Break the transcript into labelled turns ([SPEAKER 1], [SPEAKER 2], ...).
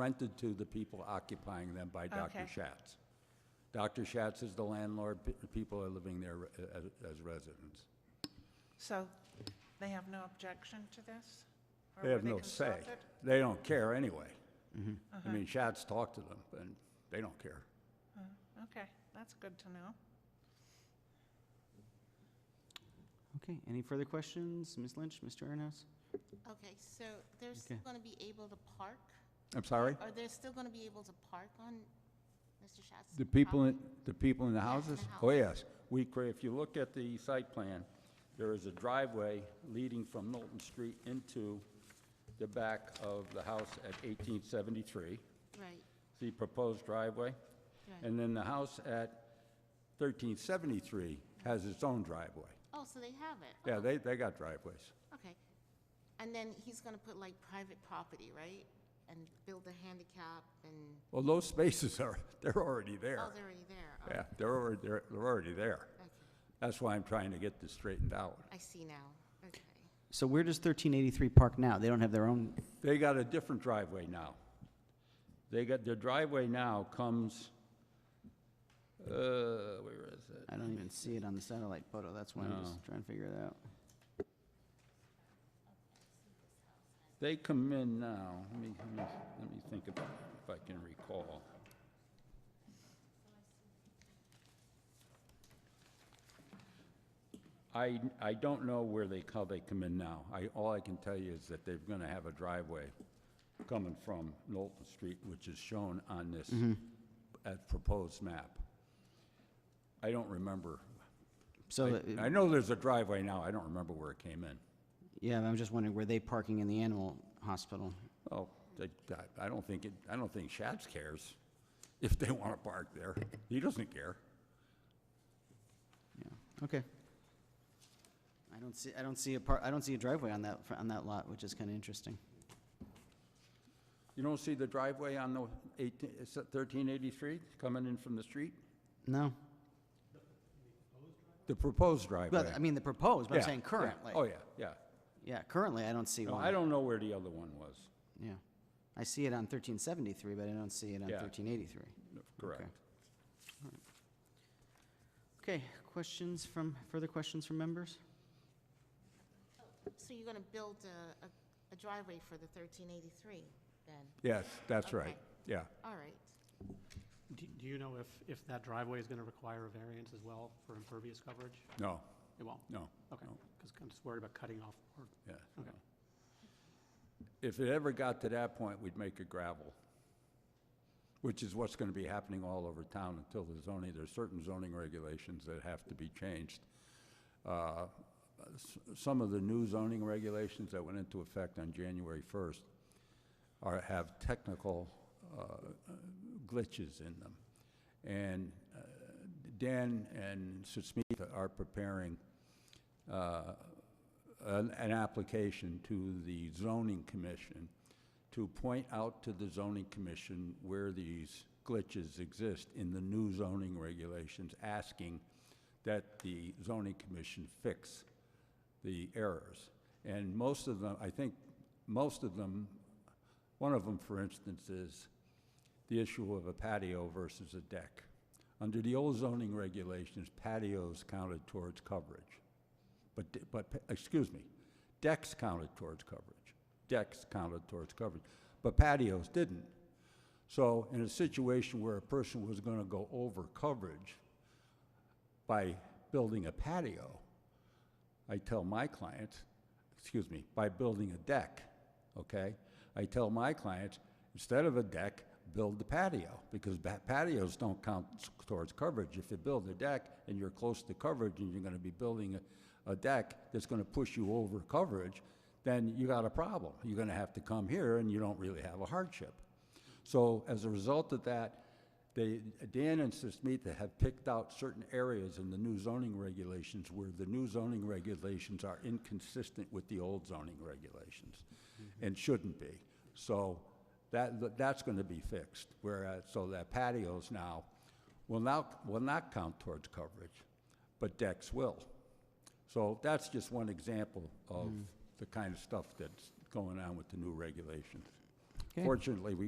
[SPEAKER 1] rented to the people occupying them by Dr.
[SPEAKER 2] Okay.
[SPEAKER 1] Schatz. Dr. Schatz is the landlord, pe- people are living there a- a- as residents.
[SPEAKER 2] So they have no objection to this? Or
[SPEAKER 1] They
[SPEAKER 2] were
[SPEAKER 1] have no say. Mm-hmm.
[SPEAKER 2] consulted?
[SPEAKER 1] They don't care anyway. I mean, Schatz talked to them, and they don't care.
[SPEAKER 2] Okay, that's good to know.
[SPEAKER 3] Okay, any further questions? Ms. Lynch, Mr. Aronhouse?
[SPEAKER 4] Okay, so they're still
[SPEAKER 3] Okay.
[SPEAKER 4] going to be able to park?
[SPEAKER 1] I'm sorry?
[SPEAKER 4] Are they still going to be able to park on Mr. Schatz's
[SPEAKER 1] The people
[SPEAKER 4] property?
[SPEAKER 1] in, the people in the
[SPEAKER 4] Yes, in
[SPEAKER 1] houses?
[SPEAKER 4] the
[SPEAKER 1] Oh,
[SPEAKER 4] house.
[SPEAKER 1] yes. We, cre- if you look at the site plan, there is a driveway leading from Knowlton Street into the back of the house at 1873,
[SPEAKER 4] Right,
[SPEAKER 1] the proposed driveway.
[SPEAKER 4] Right.
[SPEAKER 1] And then the house at 1373 has its own driveway.
[SPEAKER 4] oh, so they have it?
[SPEAKER 1] Yeah, they, they got driveways.
[SPEAKER 4] Okay. And then he's going to put like private property, right? And build a handicap and,
[SPEAKER 1] Well, those spaces are, they're already
[SPEAKER 4] oh,
[SPEAKER 1] there.
[SPEAKER 4] they're already there? Oh,
[SPEAKER 1] Yeah, they're already, they're they're already there.
[SPEAKER 4] Okay,
[SPEAKER 1] That's why I'm trying to get this straightened out.
[SPEAKER 4] Oh, I see now, okay.
[SPEAKER 3] So where does 1383 park now? They don't have their own,
[SPEAKER 1] They got a different driveway now. They got, their driveway now comes, uh, where is it?
[SPEAKER 3] I don't even see it on the satellite photo, that's why I'm just trying to figure it out.
[SPEAKER 1] They come in now, let me, let me, let me think about, if I can recall. I, I don't know where they, how they come in now. I, all I can tell you is that they're gonna have a driveway coming from Knowlton Street, which is shown on this, uh, proposed map. I don't remember.
[SPEAKER 3] So,
[SPEAKER 1] I I
[SPEAKER 3] that-
[SPEAKER 1] know there's a driveway now, I don't remember where it came in.
[SPEAKER 3] yeah, I'm just wondering, were they parking in the animal hospital?
[SPEAKER 1] Well, they- Oh, I- I don't think, it. I don't think Schatz cares if they want to park there. He doesn't care.
[SPEAKER 3] Yeah, okay. I don't see, I don't see a par, I don't see a driveway on that, fr- on that lot, which is kind of interesting.
[SPEAKER 1] You don't see the driveway on the 18 is it 1383 coming in from the street?
[SPEAKER 3] No?
[SPEAKER 1] The proposed driveway.
[SPEAKER 3] Well, I mean, the proposed, but I'm
[SPEAKER 1] Yeah,
[SPEAKER 3] saying
[SPEAKER 1] yeah.
[SPEAKER 3] currently.
[SPEAKER 1] Oh, yeah, yeah.
[SPEAKER 3] Yeah, currently, I don't see
[SPEAKER 1] No,
[SPEAKER 3] one.
[SPEAKER 1] I don't know where the other one was.
[SPEAKER 3] Yeah. I see it on 1373, but I don't see it on
[SPEAKER 1] Yeah.
[SPEAKER 3] 1383.
[SPEAKER 1] No, Correct.
[SPEAKER 3] Okay, questions from, further questions from members?
[SPEAKER 4] So you're going to build a- a a driveway for the 1383 then?
[SPEAKER 1] Yes, that's
[SPEAKER 4] Okay.
[SPEAKER 1] right. Yeah.
[SPEAKER 4] All right.
[SPEAKER 5] Do do you know if, if that driveway is going to require a variance as well for impervious coverage?
[SPEAKER 1] No,
[SPEAKER 5] It won't?
[SPEAKER 1] no.
[SPEAKER 5] Okay,
[SPEAKER 1] no,
[SPEAKER 5] because I'm just worried about cutting off. or-
[SPEAKER 1] Yeah.
[SPEAKER 5] Okay.
[SPEAKER 1] If it ever got to that point, we'd make it gravel, which is what's going to be happening all over town until the zoning, there's certain zoning regulations that have to be changed. Uh, s- Some of the new zoning regulations that went into effect on January 1st are, have technical uh, glitches in them. And uh, Dan and Susmita are preparing uh, an, an application to the zoning commission to point out to the zoning commission where these glitches exist in the new zoning regulations, asking that the zoning commission fix the errors. And most of them, I think, most of them, one of them, for instance, is the issue of a patio versus a deck. Under the old zoning regulations, patios counted towards coverage. But, de- but, pa- excuse me, decks counted towards coverage. Decks counted towards coverage, but patios didn't. So in a situation where a person was gonna go over coverage by building a patio, I tell my clients, excuse me, by building a deck, okay? I tell my clients, instead of a deck, build the patio, because ba- patios don't count s- towards coverage. If you build a deck and you're close to coverage and you're gonna be building a, a deck that's gonna push you over coverage, then you got a problem. You're gonna have to come here and you don't really have a hardship. So as a result of that, they, Dan and Sismita have picked out certain areas in the new zoning regulations where the new zoning regulations are inconsistent with the old zoning regulations and shouldn't be. So that, that's going to be fixed, whereas, so that patios now will now, will not count towards coverage, but decks will. So that's just one example of the kind of stuff that's going on with the new regulations.
[SPEAKER 3] Okay.
[SPEAKER 1] Fortunately, we